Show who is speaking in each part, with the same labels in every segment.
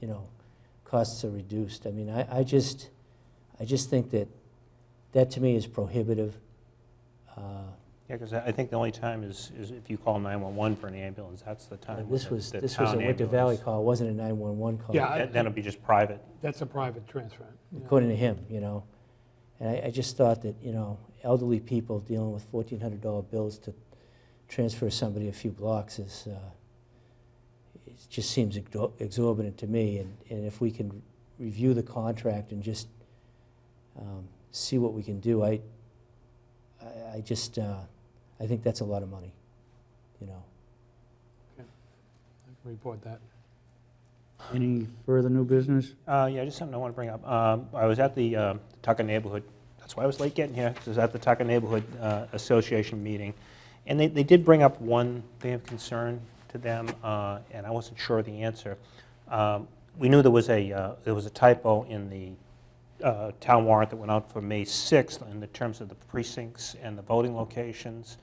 Speaker 1: you know, costs are reduced. I mean, I, I just, I just think that, that to me is prohibitive. Uh,
Speaker 2: Yeah, because I I think the only time is, is if you call 911 for an ambulance, that's the time. when
Speaker 1: This
Speaker 2: the-
Speaker 1: was,
Speaker 2: the
Speaker 1: this was a
Speaker 2: town
Speaker 1: Winter Valley
Speaker 2: ambulance-
Speaker 1: call, it wasn't a 911 call.
Speaker 3: Yeah, I-
Speaker 2: Then then it'll be just private.
Speaker 3: That's a private transfer. yeah.
Speaker 1: according to him, you know. And I, I just thought that, you know, elderly people dealing with fourteen hundred dollar bills to transfer somebody a few blocks is, uh, it just seems exor- exorbitant to me, and, and if we can review the contract and just, um, see what we can do, I, I, I just, uh, I think that's a lot of money, you know.
Speaker 3: I can Report that.
Speaker 4: Any further new business?
Speaker 2: Uh, Yeah, just something I want to bring up. Um, I was at the um, Tucker Neighborhood, that's why I was late getting here, 'cause I was at the Tucker Neighborhood uh, Association meeting, and they they did bring up one thing of concern to them, uh, and I wasn't sure of the answer. Um, We knew there was a, uh, there was a typo in the uh, town warrant that went out for May 6th in the terms of the precincts and the voting locations,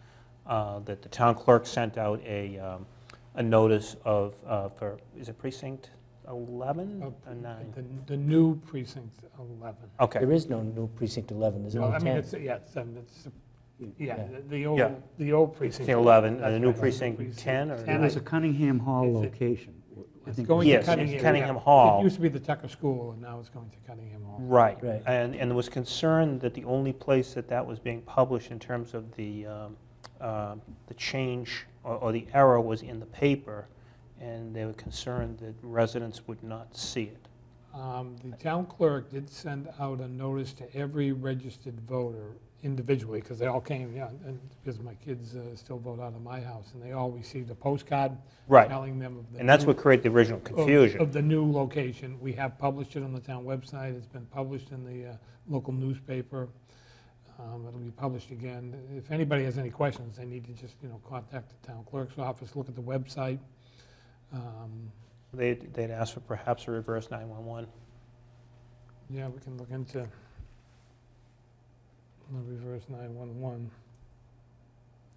Speaker 2: uh, that the town clerk sent out a, um, a notice of, uh, for, is it precinct 11
Speaker 3: Uh,
Speaker 2: or 9?
Speaker 3: The, the new precinct 11.
Speaker 2: Okay,
Speaker 1: There is no new precinct eleven, there's
Speaker 3: Well,
Speaker 1: only
Speaker 3: I mean,
Speaker 1: ten.
Speaker 3: it's, yeah, it's, um, it's, yeah,
Speaker 1: Yeah.
Speaker 3: the- the old,
Speaker 2: Yeah.
Speaker 3: the old precinct.
Speaker 2: Precinct 11,
Speaker 3: That's
Speaker 2: and the new
Speaker 3: right,
Speaker 2: precinct 10, or?
Speaker 4: It
Speaker 3: And
Speaker 4: was
Speaker 3: I-
Speaker 4: a Cunningham Hall
Speaker 3: It's a-
Speaker 4: location. I
Speaker 3: It's
Speaker 4: think
Speaker 3: going to
Speaker 2: Yes,
Speaker 3: Cunningham.
Speaker 2: it's
Speaker 3: yeah.
Speaker 2: Cunningham Hall.
Speaker 3: It used to be the Tucker School, and now it's going to Cunningham Hall.
Speaker 2: Right.
Speaker 1: Right.
Speaker 2: And, and there was concern that the only place that that was being published in terms of the, um, um, the change or, or the error was in the paper, and they were concerned that residents would not see it.
Speaker 3: Um, The town clerk did send out a notice to every registered voter individually, because they all came, yeah, and because my kids uh, still vote out of my house, and they all received a postcard
Speaker 2: Right.
Speaker 3: telling them of the.
Speaker 2: And that's
Speaker 3: new-
Speaker 2: what created the original
Speaker 3: of-
Speaker 2: confusion.
Speaker 3: Of the new location. We have published it on the town website. It's been published in the uh, local newspaper. Um, It'll be published again. If anybody has any questions, they need to just, you know, contact the town clerk's office, look at the website. Um,
Speaker 2: They'd, they'd asked for perhaps a reverse 911.
Speaker 3: Yeah, we can look into the reverse 911.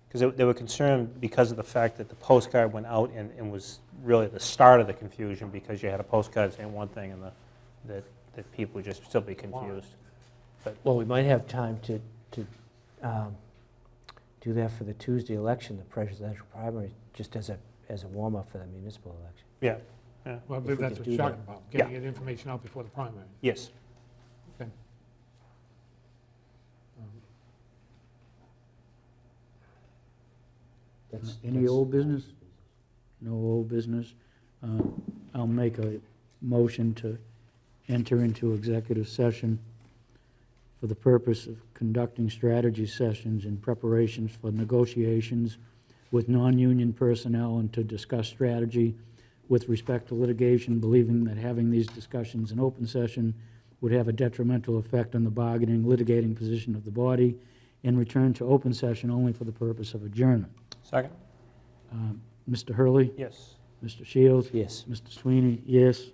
Speaker 2: Because they were concerned because of the fact that the postcard went out and, and was really the start of the confusion because you had a postcard saying one thing and the, that, that people would just still be confused.
Speaker 1: Well, we might have time to, to um, do that for the Tuesday election, the presidential primary, just as a, as a warm-up for the municipal election.
Speaker 2: Yeah,
Speaker 3: Well, I
Speaker 1: If
Speaker 3: believe
Speaker 1: we
Speaker 3: that's
Speaker 1: could
Speaker 3: what you're
Speaker 1: do that.
Speaker 3: talking about, getting that information out before the primary.
Speaker 2: yes.
Speaker 3: Um,
Speaker 1: That's-
Speaker 4: Any
Speaker 1: that's-
Speaker 4: old business? No old business. Uh, I'll make a motion to enter into executive session for the purpose of conducting strategy sessions in preparations for negotiations with non-union personnel and to discuss strategy with respect to litigation, believing that having these discussions in open session would have a detrimental effect on the bargaining, litigating position of the body, and return to open session only for the purpose of adjournment.
Speaker 2: Second?
Speaker 4: Um, Mr. Hurley,
Speaker 2: Yes.
Speaker 4: Mr. Shields,
Speaker 1: Yes.
Speaker 4: Mr. Sweeney, yes.